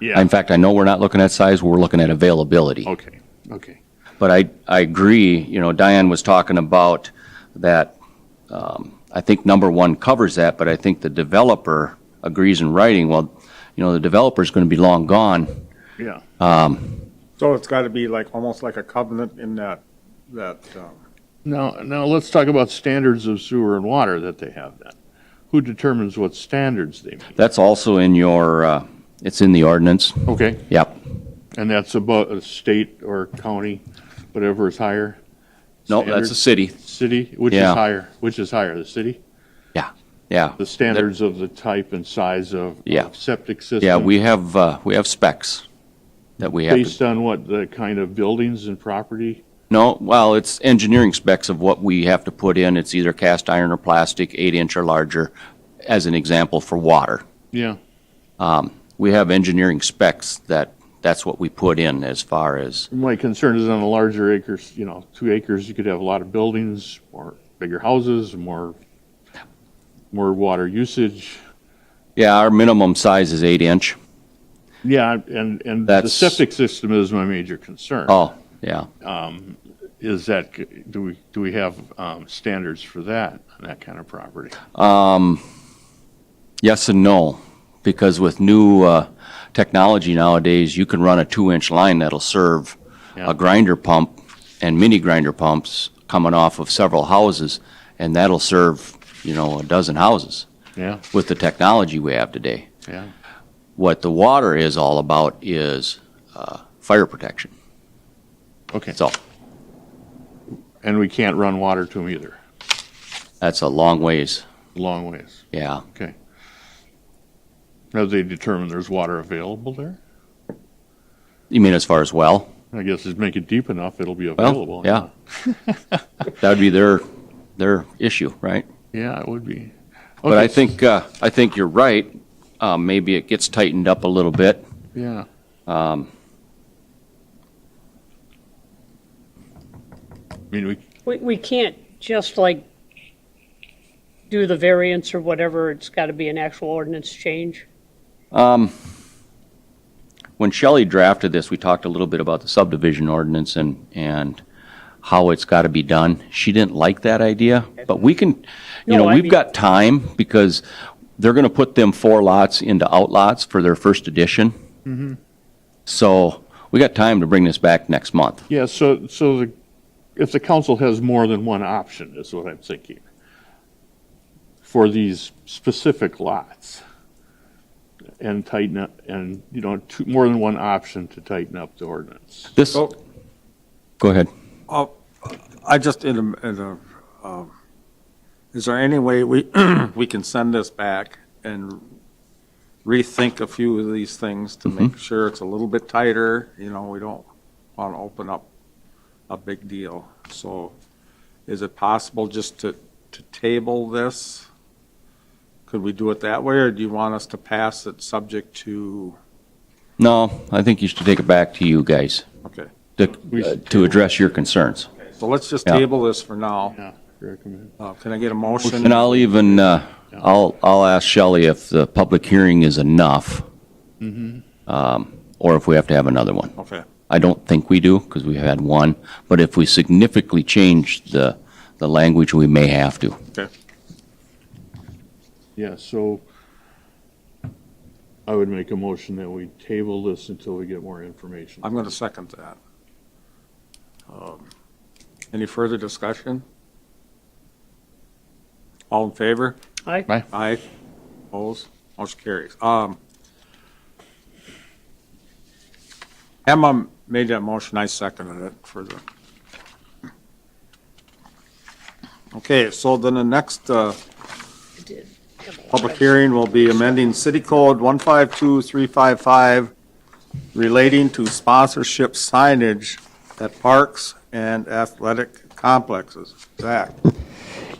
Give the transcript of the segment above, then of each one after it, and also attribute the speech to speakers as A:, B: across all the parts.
A: Yeah.
B: In fact, I know we're not looking at size, we're looking at availability.
C: Oh.
A: Okay, okay.
B: But I, I agree, you know, Diane was talking about that, um, I think number one covers that, but I think the developer agrees in writing, well, you know, the developer's gonna be long gone.
A: Yeah,
D: So it's got to be like, almost like a covenant in that, that, um,
C: Now, now let's talk about standards of sewer and water that they have then. Who determines what standards they meet?
B: That's also in your, uh, it's in the ordinance,
C: Okay,
B: yep.
C: and that's about a state or county, whatever is higher,
B: No, that's a
C: Standard.
B: city,
C: city, which is
B: Yeah.
C: higher, which is higher, the city?
B: yeah.
C: The standards of the type and size of
B: Yeah.
C: of septic system?
B: Yeah, we have, uh, we have specs that we have to
C: Based on what, the kind of buildings and property?
B: No, well, it's engineering specs of what we have to put in. It's either cast iron or plastic, eight inch or larger, as an example for water. Um,
C: Yeah,
B: We have engineering specs that, that's what we put in as far as,
C: my concern is on the larger acres, you know, two acres, you could have a lot of buildings, or bigger houses, more, more water usage.
B: yeah, our minimum size is eight inch.
C: Yeah, and, and the
B: That's-
C: septic system is my major concern.
B: Oh, yeah.
C: Is that, c- do we, do we have um, standards for that, on that kind of property?
B: Yes and no, because with new uh, technology nowadays, you can run a two-inch line that'll serve
C: Yeah.
B: a grinder pump and mini grinder pumps coming off of several houses, and that'll serve, you know, a dozen houses
C: Yeah,
B: with the technology we have today.
C: yeah,
B: What the water is all about is uh, fire protection.
C: okay.
B: That's all.
C: And we can't run water to them either,
B: That's a long ways.
C: long ways.
B: Yeah.
C: Have they determined there's water available there?
B: You mean as far as well?
C: I guess it's make it deep enough, it'll be
B: Well,
C: available.
B: yeah. that would be their their issue, right?
C: Yeah, it would be.
B: But I
C: Okay,
B: think, uh, I think you're right. Uh, maybe it gets tightened up a little bit.
C: Yeah. Um, I mean, we,
E: We, we can't just like do the variance or whatever, it's got to be an actual ordinance change.
B: When Shelley drafted this, we talked a little bit about the subdivision ordinance and, and how it's got to be done. She didn't like that idea, but we can, you know,
E: No, I
B: we've
E: mean-
B: got time because they're going to put them four lots into outlots for their first edition. So we got time to bring this back next month.
C: yeah, so, so the, if the council has more than one option, is what I'm thinking, for these specific lots, and tighten up, and, you know, two, more than one option to tighten up the ordinance.
B: This,
D: Oh.
B: go ahead.
D: I just, in a, in a, um, is there any way we, we can send this back and rethink a few of these things to make sure it's a little bit tighter, you know, we don't want to open up a big deal. So is it possible just to, to table this? Could we do it that way, or do you want us to pass it subject to,
B: No, I think you should take it back to you guys
D: okay.
B: to,
C: We
B: uh,
C: should
B: to address your concerns.
D: So let's just
B: Yeah.
D: table this for now.
C: Yeah, recommend.
D: Uh, Can I get a motion?
B: And I'll even, uh, I'll, I'll ask Shelley if the public hearing is enough, um, or if we have to have another one.
D: Okay.
B: I don't think we do, because we had one, but if we significantly change the, the language, we may have to.
C: Yeah, so I would make a motion that we table this until we get more information.
D: I'm going to second that. Um, Any further discussion? All in favor?
E: I,
C: Right.
D: Aye. Opposed? Motion carries. Um, Emma made that motion, I seconded it for the. Okay, so then the next uh,
E: I did. have a lot
D: public
E: of-
D: hearing will be amending City Code 152355 relating to sponsorship signage at parks and athletic complexes. Zach?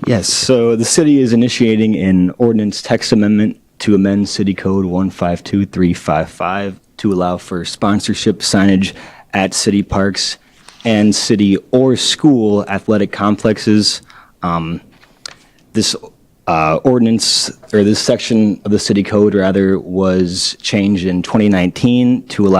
F: Yes, so the city is initiating an ordinance text amendment to amend City Code 152355 to allow for sponsorship signage at city parks and city or school athletic complexes. Um, This Uh, ordinance, or this section of the city code, rather, was changed in 2019 to allow